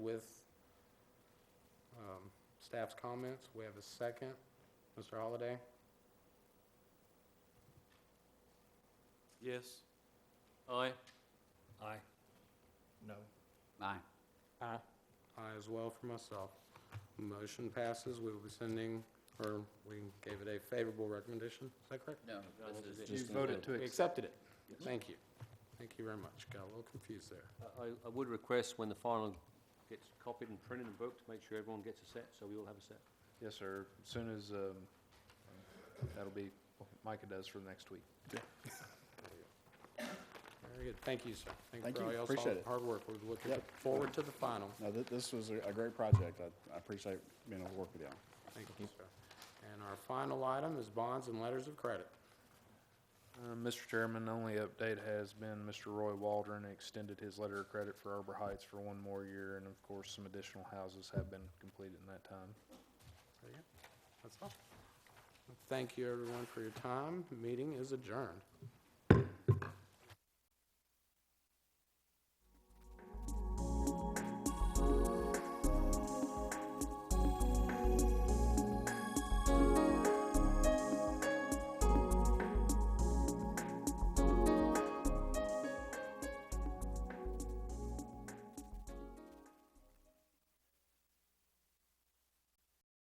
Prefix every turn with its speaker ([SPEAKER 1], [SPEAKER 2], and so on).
[SPEAKER 1] with um, staff's comments. We have a second. Mr. Holliday?
[SPEAKER 2] Yes. Aye.
[SPEAKER 3] Aye.
[SPEAKER 4] No.
[SPEAKER 3] Aye.
[SPEAKER 1] Aye. Aye as well for myself. Motion passes. We will be sending, or we gave it a favorable recommendation. Is that correct?
[SPEAKER 3] No.
[SPEAKER 4] You voted to
[SPEAKER 1] We
[SPEAKER 4] accept.
[SPEAKER 1] accepted it. Thank you. Thank you very much. Got a little confused there.
[SPEAKER 2] I, I would request when the final gets copied and printed and booked, make sure everyone gets a set, so we all have a set.
[SPEAKER 4] Yes, sir. As soon as, um, that'll be, what Micah does for next week.
[SPEAKER 1] Very good. Thank you, sir.
[SPEAKER 5] Thank
[SPEAKER 1] for
[SPEAKER 5] you.
[SPEAKER 1] all y'all's
[SPEAKER 5] Appreciate
[SPEAKER 1] hard-
[SPEAKER 5] it.
[SPEAKER 1] Hard work. We're looking
[SPEAKER 5] Yep.
[SPEAKER 1] forward to the final.
[SPEAKER 5] No, th- this was a a great project. I I appreciate being able to work with y'all.
[SPEAKER 1] Thank you, sir. And our final item is bonds and letters of credit.
[SPEAKER 4] Uh, Mr. Chairman, the only update has been Mr. Roy Waldron extended his letter of credit for Arbor Heights for one more year, and of course, some additional houses have been completed in that time.
[SPEAKER 1] There you go. That's all. Thank you, everyone, for your time. Meeting is adjourned.